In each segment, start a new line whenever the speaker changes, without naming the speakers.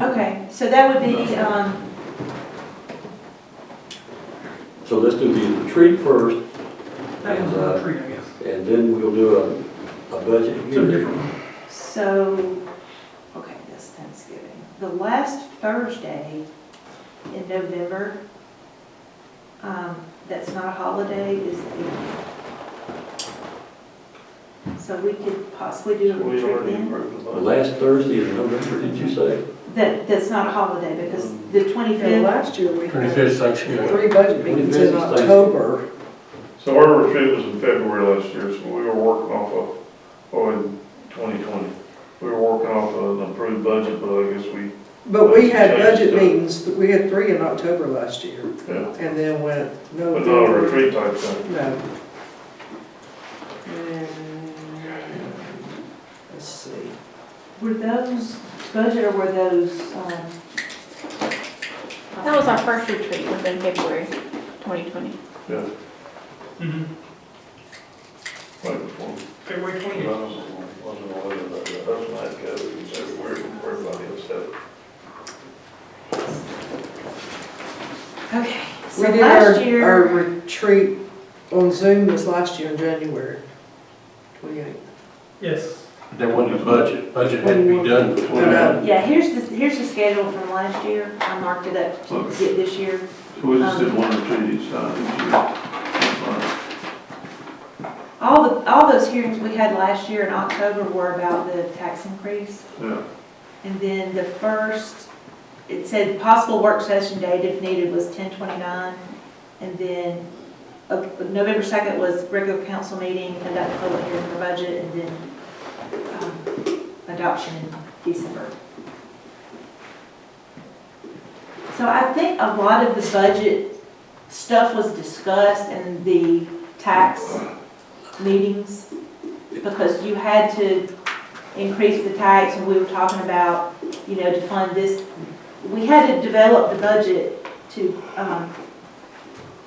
Okay, so that would be, um,
So let's do the retreat first,
That was
uh,
a retreat, I guess.
and then we'll do a, a budget
It's a
here.
different one.
so, okay, that's Thanksgiving. The last Thursday in November, um, that's not a holiday, is the eighth. So we could possibly do a
We
retreat
already
then?
approved the
The
budget.
last Thursday in November, did you say?
That, that's not a holiday, because
Mm.
the
And
twenty-fifth,
last year, we had
25th Thanksgiving.
three budget meetings in
25th is
October.
So our retreat was in February last year, so we were working off of, oh, in 2020. We were working off of an approved budget, but I guess we,
But we had budget
Change it.
meetings, we had three in October last year,
yeah,
and then went
but not a
November.
retreat type thing.
No. And, Let's see.
were those budget or were those, um?
That was our first retreat was in February 2020.
Right before.
February
I
twenty-eighth.
was- wasn't aware of that, but that's when I had COVID, it was everywhere, before everybody else had it.
Okay, so
We did our,
last year.
our retreat on Zoom was last year in January, twenty-eighth.
Yes.
That wasn't a budget. Budget had to be done before.
No,
Yeah, here's the, here's the schedule from last year, I marked it up to get this year.
So we
just did
one retreat each time.
All the, all those hearings we had last year in October were about the tax increase.
Yeah.
And then the first, it said possible work session date if needed was ten twenty-nine. And then, uh, November second was regular council meeting, conduct a public hearing for budget, and then, um, adoption in December. So I think a lot of the budget stuff was discussed in the tax meetings, because you had to increase the tax, and we were talking about, you know, to fund this. We had to develop the budget to, um,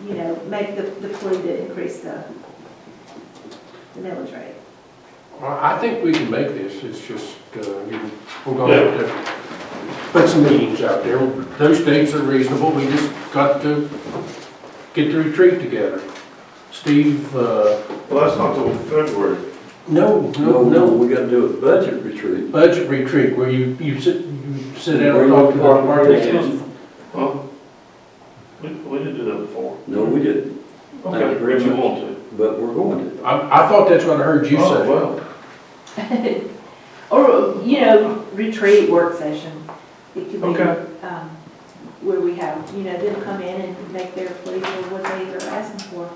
you know, make the, the plea to increase the, the millage rate.
Well, I think we can make this, it's just, uh, you- we're gonna have to put some meetings out there. Those dates are reasonable, we just got to get the retreat together. Steve, uh,
Well, that's not till February.
no,
No,
no,
no,
no,
we gotta do a budget retreat.
budget retreat where you, you sit, you sit down
Bring
and talk to the
up our
department heads.
plans.
Huh? We, we didn't do that before.
No, we didn't,
Okay, but you want to.
but we're going to.
I, I thought that's what I heard you
Oh,
say.
well.
Or, you know, retreat work session. It could
Okay.
be, um, where we have, you know, them come in and make their plea for what they are asking for.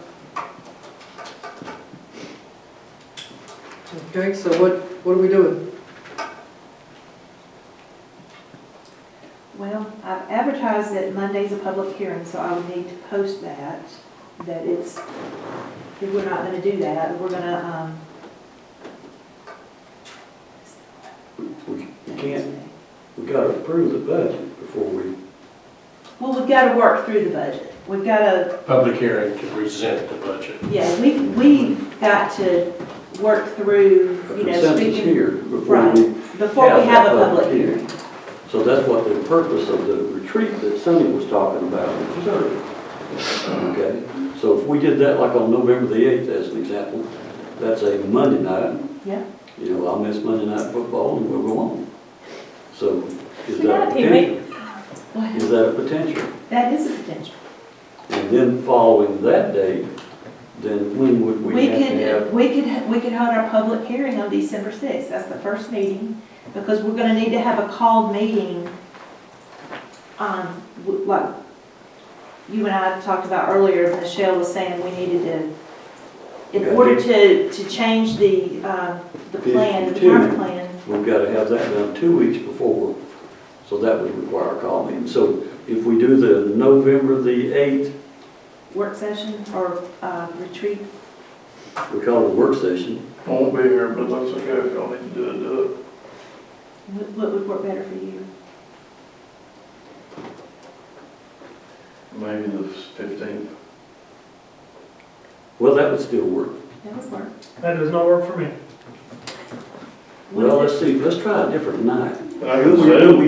okay, so what, what are we doing?
Well, I've advertised that Monday's a public hearing, so I would need to post that, that it's, if we're not gonna do that, we're gonna, um,
We
um.
can't, we gotta approve the budget before we,
Well, we've gotta work through the budget. We've gotta,
Public hearing to present the budget.
yeah, we, we've got to work through,
a
you know,
consensus
speaking,
here before we
before we have a public hearing.
So that's what the purpose of the retreat that Sonny was talking about was serving. Okay, so if we did that like on November the 8th as an example, that's a Monday night.
Yeah.
You know, I'll miss Monday night football and we'll go on. So is
You
that a
gotta be me.
potential? Is that a potential?
That is a potential.
And then following that date, then when would we
We
have to have?
could, we could, we could hold our public hearing on December sixth, that's the first meeting, because we're gonna need to have a called meeting. Um, w- like, you and I talked about earlier, Michelle was saying we needed to, in
Okay.
order to, to change the, uh, the plan, the
52.
current plan.
We've got to have that done two weeks before, so that would require a call meeting. So if we do the November the 8th,
Work session or, uh, retreat,
we call it a work session,
I won't be here, but that's okay, if y'all need to do it, do it.
what, what would work better for you?
Maybe the fifteenth.
well, that would still work.
That would work.
That does not work for me.
Well, let's see, let's try a different night.
I can say.